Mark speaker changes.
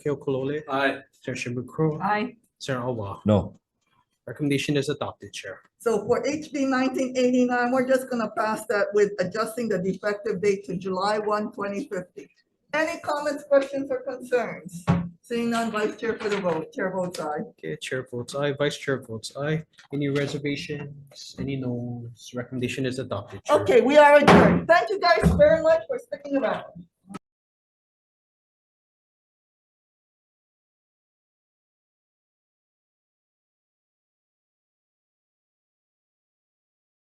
Speaker 1: Kale Colole,
Speaker 2: Aye.
Speaker 1: Chair Shimukuro,
Speaker 3: Aye.
Speaker 1: Chair Awa.
Speaker 4: No,
Speaker 1: Recommendation is adopted, Chair.
Speaker 5: So for HB nineteen eighty-nine, we're just gonna pass that with adjusting the defective date to July 1, 2050. Any comments, questions, or concerns? Seeing none, Vice Chair for the vote, Chair votes aye.
Speaker 1: Okay, Chair votes aye, Vice Chair votes aye. Any reservations? Any no's? Recommendation is adopted. Chair.
Speaker 5: Okay, we are adjourned. Thank you guys very much for sticking around.